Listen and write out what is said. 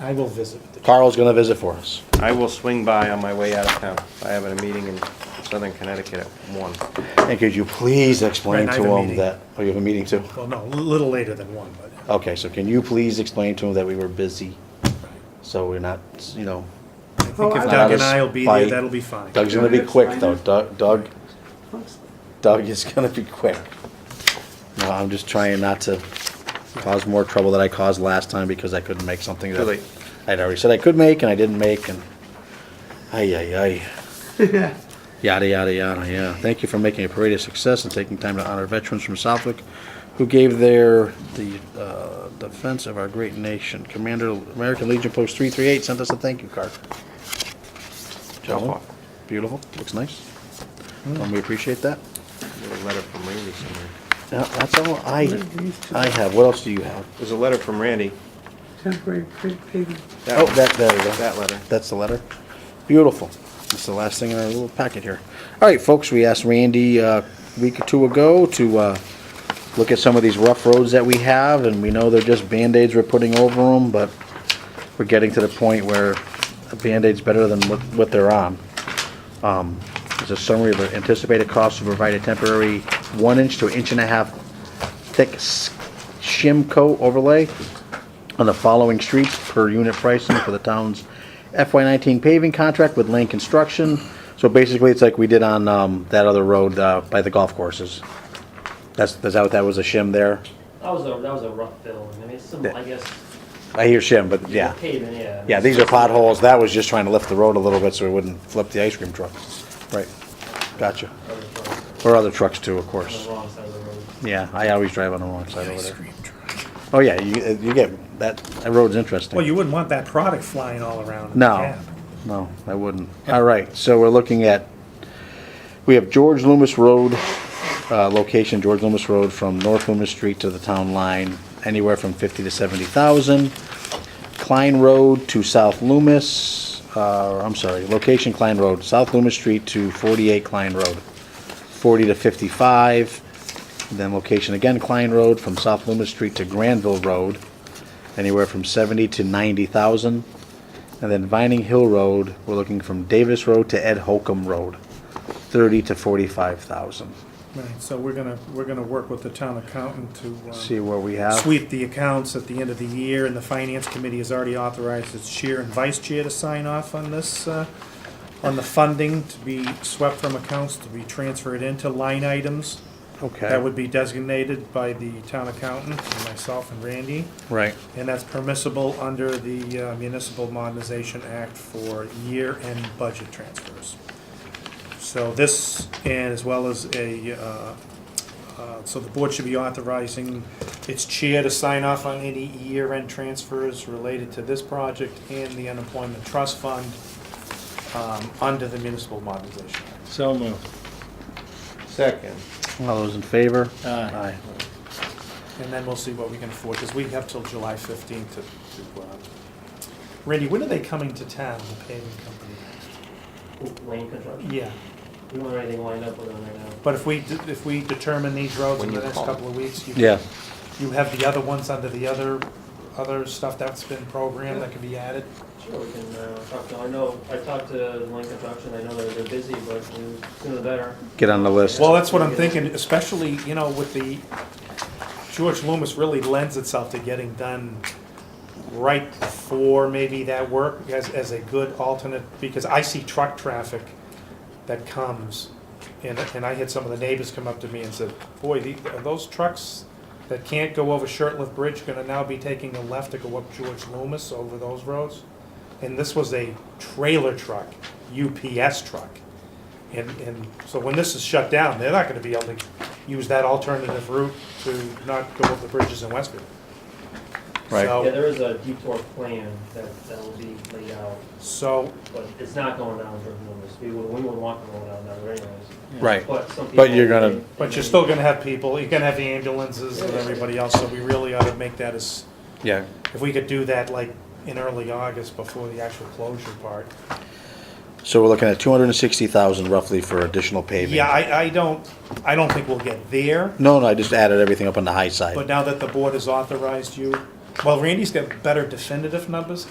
I will visit with the Carl's gonna visit for us. I will swing by on my way out of town. I have a meeting in Southern Connecticut at one. And could you please explain Right, I to have a him meeting. that, oh, you have a meeting too? Well, no, a little later than one, but, Okay, so can you please explain to him that we were busy, so we're not, you know, I think if Oh, I- Doug and I will be there, Fight. that'll be fine. Doug's gonna be quick though, Doug, Doug, Doug is gonna be quick. No, I'm just trying not to cause more trouble than I caused last time because I couldn't make something Too that late. I'd already said I could make and I didn't make and, ay, ay, ay. Yada, yada, yada, yeah. Thank you for making a parade a success and taking time to honor veterans from Southwick who gave their, the uh, defense of our great nation. Commander, American Legion Post 338 sent us a thank you card. Gentlemen, off. beautiful, Mm. looks nice. And we appreciate that. There's a letter from Randy somewhere. Yeah, that's all I, I have. What else do you have? There's a letter from Randy. Temporary pa- paving. That Oh, one. that, there we go. That letter. That's the letter. Beautiful. That's the last thing in our little packet here. All right, folks, we asked Randy uh, a week or two ago to uh, look at some of these rough roads that we have, and we know they're just Band-Aids we're putting over them, but we're getting to the point where a Band-Aid's better than what, what they're on. Um, There's a summary of the anticipated costs to provide a temporary one inch to an inch and a half thick s- shim coat overlay on the following streets per unit pricing for the town's FY19 paving contract with Lane Construction. So basically, it's like we did on um, that other road uh, by the golf courses. That's, that's how that was a shim there. That was a, that was a rough fill, I mean, it's some, I guess, I hear shim, but yeah. pavement, yeah. Yeah, these are potholes. That was just trying to lift the road a little bit so it wouldn't flip the ice cream truck. Right. Gotcha. Or other trucks too, of On course. the wrong side of the road. Yeah, I always drive on the wrong side over there. Oh, yeah, you, you get, that, that road's interesting. Well, you wouldn't want that product flying all around in the No, cab. no, I wouldn't. All right, so we're looking at, we have George Loomis Road, uh, location, George Loomis Road from North Loomis Street to the town line, anywhere from fifty to seventy thousand. Klein Road to South Loomis, uh, I'm sorry, location Klein Road, South Loomis Street to forty-eight Klein Road, forty to fifty-five. Then location again Klein Road from South Loomis Street to Granville Road, anywhere from seventy to ninety thousand. And then Vining Hill Road, we're looking from Davis Road to Ed Holcomb Road, thirty to forty-five thousand. Right, so we're gonna, we're gonna work with the town accountant to, See uh, um, where we have. sweep the accounts at the end of the year, and the finance committee has already authorized its chair and vice chair to sign off on this, uh, on the funding to be swept from accounts, to be transferred into line items. That Okay, would be designated by the town accountant, and myself and Randy. right. And that's permissible under the uh, Municipal Modernization Act for year-end budget transfers. So this, and as well as a, uh, uh, so the board should be authorizing its chair to sign off on any year-end transfers related to this project and the unemployment trust fund um, under the Municipal Modernization Act. So moved. Second. All those in favor? Aye. Aye. And then we'll see what we can afford, because we have till July 15th to, to, uh, Randy, when are they coming to town, the paving company? Lane construction, Yeah, we don't have anything lined up with them right now. but if we, de- if we determine these roads in When the you next call. couple of weeks, you, Yeah, you have the other ones under the other, other stuff that's been programmed that can be added? Sure, we can, uh, talk to, I know, I talked to Lane Construction, I know they're, they're busy, but the sooner the better. get on the list. Well, that's what I'm thinking, especially, you know, with the, George Loomis really lends itself to getting done right before maybe that work as, as a good alternate, because I see truck traffic that comes, and, and I had some of the neighbors come up to me and said, boy, the- are those trucks that can't go over Shirtlift Bridge gonna now be taking a left to go up George Loomis over those roads? And this was a trailer truck, UPS truck. And, and so when this is shut down, they're not gonna be able to use that alternative route to not go over the bridges in Westfield. Right. Yeah, So, there is a detour plan that, that will be laid out, so, but it's not going down Jordan Loomis, we would, we would want to go down that road anyways. Right. But some people. But you're gonna- they- but you're still gonna have people, you're gonna have the ambulances and everybody else, so we really ought to make that as, Yeah. if we could do that like in early August before the actual closure part. So we're looking at two hundred and sixty thousand roughly for additional paving. Yeah, I, I don't, I don't think we'll get there, No, no, I just added everything up on the high side. but now that the board has authorized you, well, Randy's got better definitive numbers